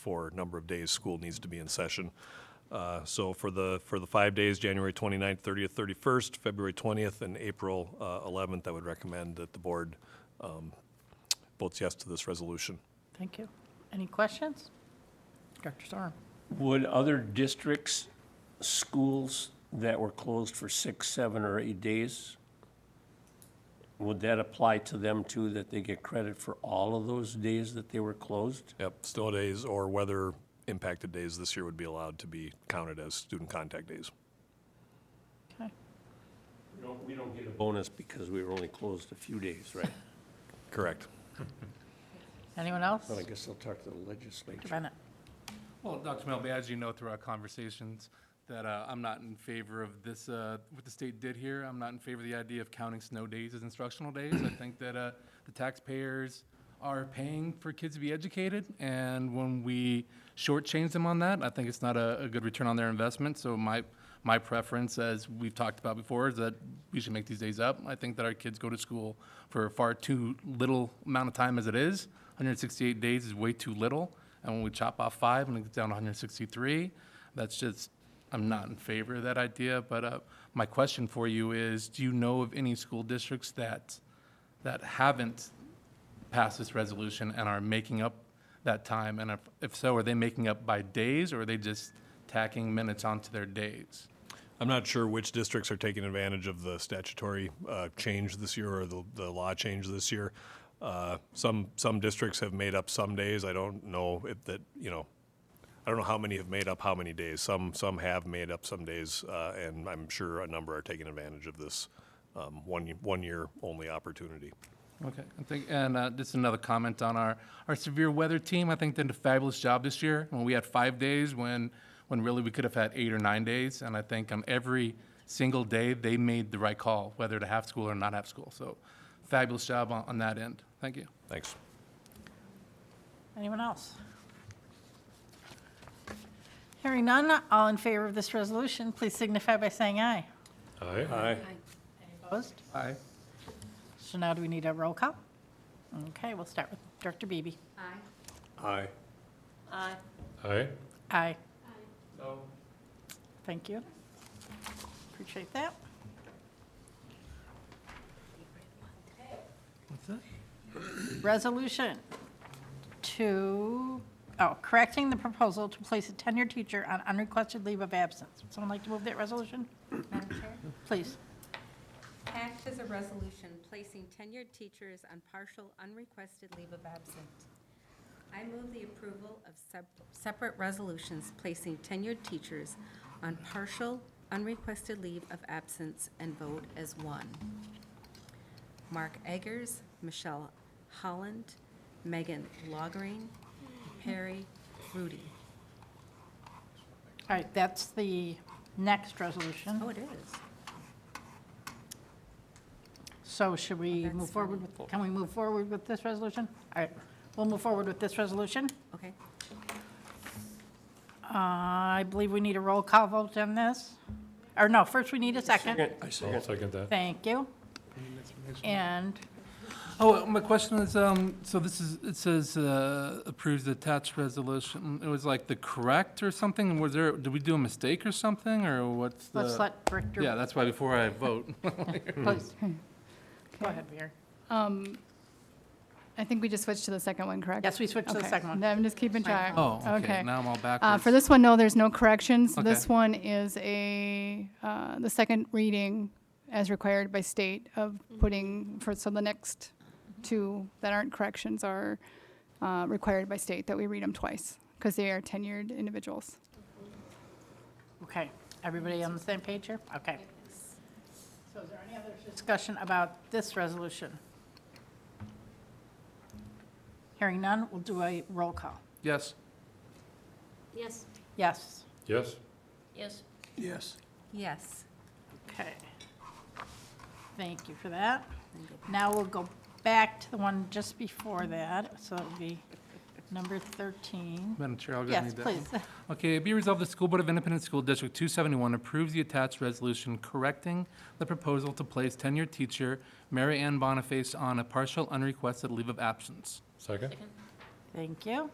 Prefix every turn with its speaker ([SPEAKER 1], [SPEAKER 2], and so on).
[SPEAKER 1] for number of days school needs to be in session. Uh, So for the, for the five days, January 29th, 30th, 31st, February 20th, and April uh, 11th, I would recommend that the board um, votes yes to this resolution.
[SPEAKER 2] Thank you. Any questions? Dr. Sorum?
[SPEAKER 3] Would other districts, schools that were closed for six, seven, or eight days, would that apply to them too, that they get credit for all of those days that they were closed?
[SPEAKER 1] Yep, snow days or weather impacted days this year would be allowed to be counted as student contact days.
[SPEAKER 2] Okay.
[SPEAKER 3] We don't, we don't get a bonus because we were only closed a few days, right?
[SPEAKER 1] Correct.
[SPEAKER 2] Anyone else?
[SPEAKER 3] But I guess I'll talk to the legislature.
[SPEAKER 2] Dr. Bennett?
[SPEAKER 4] Well, Dr. Melby, as you know through our conversations, that uh, I'm not in favor of this, uh, what the state did here. I'm not in favor of the idea of counting snow days as instructional days. I think that uh, the taxpayers are paying for kids to be educated, and when we shortchange them on that, I think it's not a a good return on their investment. So my, my preference, as we've talked about before, is that we should make these days up. I think that our kids go to school for far too little amount of time as it is. 168 days is way too little. And when we chop off five and it gets down to 163, that's just, I'm not in favor of that idea. But uh, my question for you is, do you know of any school districts that, that haven't passed this resolution and are making up that time? And if, if so, are they making up by days or are they just tacking minutes onto their days?
[SPEAKER 1] I'm not sure which districts are taking advantage of the statutory uh, change this year or the, the law change this year. Uh, Some, some districts have made up some days. I don't know if that, you know, I don't know how many have made up how many days. Some, some have made up some days, uh, and I'm sure a number are taking advantage of this um, one, one year only opportunity.
[SPEAKER 4] Okay, I think, and uh, just another comment on our, our severe weather team. I think they did a fabulous job this year. When we had five days, when when really we could have had eight or nine days, and I think on every single day they made the right call, whether to have school or not have school. So, fabulous job on, on that end. Thank you.
[SPEAKER 1] Thanks.
[SPEAKER 2] Anyone else? Hearing none, all in favor of this resolution, please signify by saying aye.
[SPEAKER 1] Aye. Aye.
[SPEAKER 2] Opposed?
[SPEAKER 4] Aye.
[SPEAKER 2] So now do we need a roll call? Okay, we'll start with Director Beebe.
[SPEAKER 1] Aye.
[SPEAKER 2] Aye.
[SPEAKER 1] Aye.
[SPEAKER 2] Aye.
[SPEAKER 4] No.
[SPEAKER 2] Thank you. Appreciate that.
[SPEAKER 4] What's that?
[SPEAKER 2] Resolution to, oh, correcting the proposal to place a tenured teacher on unrequested leave of absence. Would someone like to move that resolution?
[SPEAKER 5] Madam Chair,
[SPEAKER 2] Please.
[SPEAKER 5] act as a resolution placing tenured teachers on partial unrequested leave of absence. I move the approval of sep- separate resolutions placing tenured teachers on partial unrequested leave of absence and vote as one. Mark Eggers, Michelle Holland, Megan Loggerine, Perry Rudy.
[SPEAKER 2] All right, that's the next resolution.
[SPEAKER 5] Oh, it is.
[SPEAKER 2] So should we
[SPEAKER 5] That's
[SPEAKER 2] move forward
[SPEAKER 5] fine.
[SPEAKER 2] with, can we move forward with this resolution? All right, we'll move forward with this resolution.
[SPEAKER 5] Okay.
[SPEAKER 2] Uh, I believe we need a roll call vote on this. Or no, first we need a second.
[SPEAKER 3] I second.
[SPEAKER 2] Thank you. And,
[SPEAKER 4] Oh, my question is, um, so this is, it says, uh, approves the attached resolution. It was like the correct or something? Was there, did we do a mistake or something, or what's the?
[SPEAKER 2] let's let Richter.
[SPEAKER 4] Yeah, that's why before I vote.
[SPEAKER 2] please. Go ahead, Vera.
[SPEAKER 6] Um, I think we just switched to the second one, correct?
[SPEAKER 2] Yes, we switched to the
[SPEAKER 6] Okay.
[SPEAKER 2] second one.
[SPEAKER 6] No, I'm just keeping track.
[SPEAKER 4] Oh, okay, now I'm all
[SPEAKER 6] Uh,
[SPEAKER 4] backwards.
[SPEAKER 6] For this one, no, there's no corrections. This
[SPEAKER 4] Okay.
[SPEAKER 6] one is a, uh, the second reading as required by state of putting, for, so the next two that aren't corrections are uh, required by state, that we read them twice, because they are tenured individuals.
[SPEAKER 2] Okay, everybody on the same page here? Okay. So is there any other discussion about this resolution? Hearing none, we'll do a roll call.
[SPEAKER 4] Yes.
[SPEAKER 5] Yes.
[SPEAKER 2] Yes.
[SPEAKER 1] Yes.
[SPEAKER 2] Yes.
[SPEAKER 3] Yes.
[SPEAKER 5] Yes.
[SPEAKER 2] Okay. Thank you for that. Now we'll go back to the one just before that, so it'll be number 13.
[SPEAKER 4] Madam Chair, I'll just
[SPEAKER 2] Yes,
[SPEAKER 4] need that. one.
[SPEAKER 2] please.
[SPEAKER 4] Okay, be resolved, the School Board of Independent School District 271 approves the attached resolution correcting the proposal to place tenured teacher Mary Ann Boniface on a partial unrequested leave of absence.
[SPEAKER 2] Thank you.